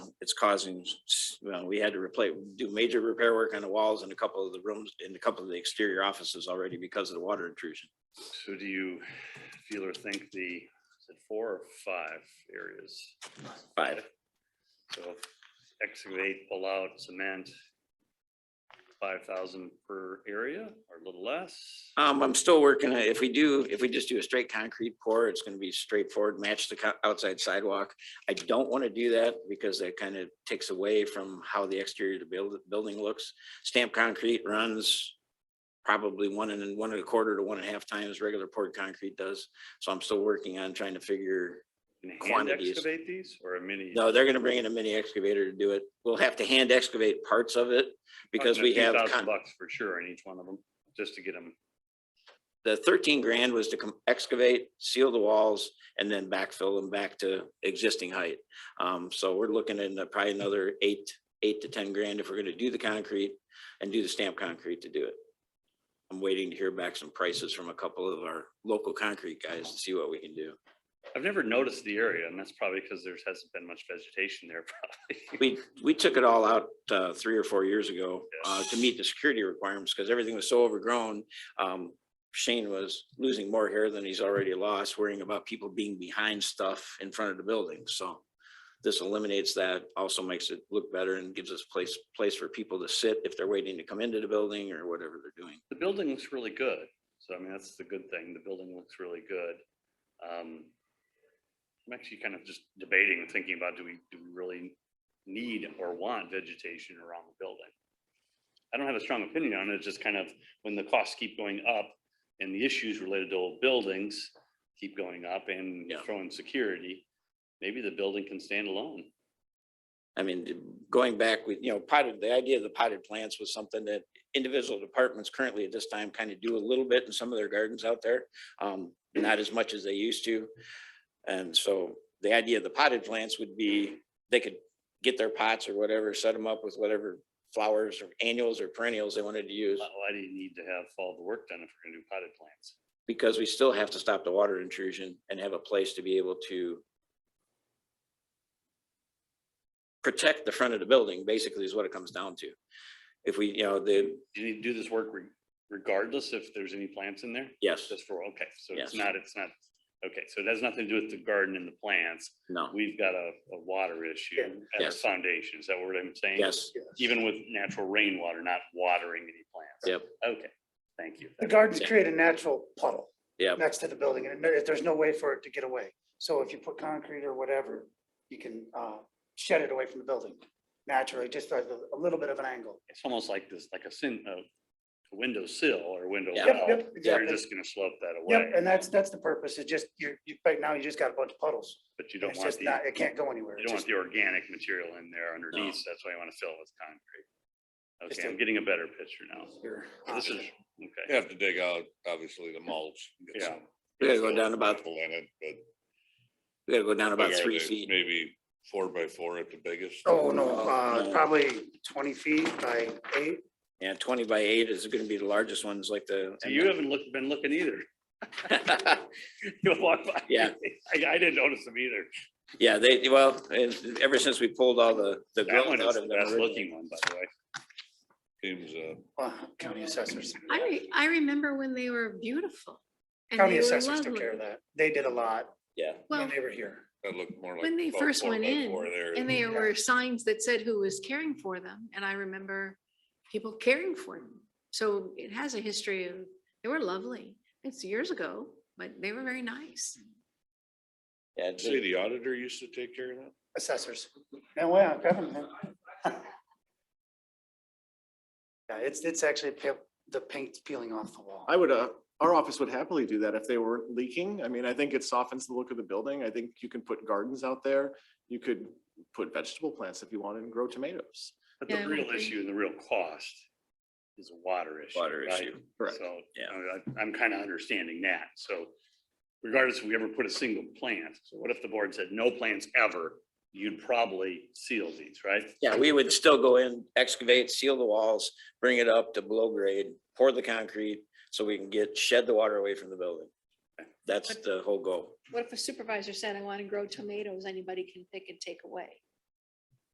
it's causing, s- well, we had to replace, do major repair work on the walls in a couple of the rooms, in a couple of the exterior offices already because of the water intrusion. So do you feel or think the, is it four or five areas? Five, So excavate, pull out, cement, five thousand per area or a little less? um, I'm still working, on- if we do, if we just do a straight concrete pour, it's gonna be straightforward, match the co- outside sidewalk. I don't wanna do that because that kind of takes away from how the exterior of the build, building looks. Stamped concrete runs probably one and one and a quarter to one and a half times regular poured concrete does. So I'm still working on trying to figure Can you hand Quantities. excavate these or a mini? No, they're gonna bring in a mini excavator to do it. We'll have to hand excavate parts of it because Talking a we few have, thousand con- Bucks for sure in each one of them, just to get them. the thirteen grand was to com- excavate, seal the walls, and then backfill them back to existing height. Um, so we're looking at probably another eight, eight to ten grand if we're gonna do the concrete and do the stamped concrete to do it. I'm waiting to hear back some prices from a couple of our local concrete guys to see what we can do. I've never noticed the area and that's probably because there hasn't been much vegetation there probably. We, we took it all out uh, three or four years ago uh, to Yes. meet the security requirements because everything was so overgrown. Um, Shane was losing more hair than he's already lost, worrying about people being behind stuff in front of the building. So this eliminates that, also makes it look better and gives us place, place for people to sit if they're waiting to come into the building or whatever they're doing. The building looks really good. So I mean, that's the good thing. The building looks really good. Um, I'm actually kind of just debating, thinking about do we, do we really need or want vegetation around the building? I don't have a strong opinion on it. It's just kind of when the costs keep going up and the issues related to old buildings keep going up and Yeah. throwing security, maybe the building can stand alone. I mean, d- going back with, you know, potted, the idea of the potted plants was something that individual departments currently at this time kind of do a little bit in some of their gardens out there. Um, not as much as they used to. And so the idea of the potted plants would be, they could get their pots or whatever, set them up with whatever flowers or annuals or perennials they wanted to use. Why why do you need to have all the work done if we're gonna do potted plants? Because we still have to stop the water intrusion and have a place to be able to protect the front of the building, basically is what it comes down to. If we, you know, the, Do you need to do this work re- regardless if there's any plants in there? yes, Just for, okay, so Yes. it's not, it's not, okay, so it has nothing to do with the garden and the plants. no, We've got a, a water issue at our Yes. foundation. Is that what I'm saying? yes, Even with natural rainwater, not watering any plants? yep, Okay, thank you. The gardens Yeah. create a natural puddle yep. next to the building and there- there's no way for it to get away. So if you put concrete or whatever, you can uh, shed it away from the building naturally, just as a a little bit of an angle. It's almost like this, like a sin, a window sill or window Yep, well. yep, You're exactly. just gonna slope that Yep, away, and that's, that's the purpose. It's just, you're, you, right now you just got a bunch of puddles. but you and don't It's want just the, not, you it can't go anywhere. It's don't want just- the organic material in there underneath. so That's why you want to fill it with concrete. Just Okay, a- I'm getting a better picture now. your This is, option. okay. You have to dig out, obviously, the mulch. and get Yeah. some- We gotta go some down about- gravel In it, but. We gotta go down about big are three they? feet. Maybe four by four at the biggest. Oh, no, uh, No. probably twenty feet by eight. Yeah, twenty by eight is gonna be the largest ones like the. So you haven't looked, been looking either. You walk by. Yeah. I, I didn't notice them either. Yeah, they, well, and ever since we pulled all the, the That growth one out is of the them. best originally. looking one, by the way. Seems, uh, Uh, County assessors. I, re- I remember when they were beautiful. and County they were assessors took lovely. care of that. They did a lot Yeah, Well, when they were here. that looked more like. when they about first four went by in four there. and there Yeah. were signs that said who was caring for them, and I remember people caring for them. So it has a history of, they were lovely. It's years ago, but they were very nice. yeah, Say the auditor used to take care of that? assessors. No way, I'm grabbing them. Yeah, it's, it's actually pale- the paint's peeling off the wall. I would, uh, our office would happily do that if they were leaking. I mean, I think it softens the look of the building. I think you can put gardens out there. You could put vegetable plants if you wanted and grow tomatoes. But the Yeah, I real agree. issue and the real cost is a water issue. Water right? issue. Correct. So Yeah. I- I'm kind of understanding that. So regardless if we ever put a single plant, so what if the board said no plants ever? You'd probably seal these, right? Yeah, we would still go in, excavate, seal the walls, bring it up to below grade, pour the concrete, so we can get, shed the water away from the building. That's the whole goal. What if a supervisor said, I want to grow tomatoes, anybody can pick and take away?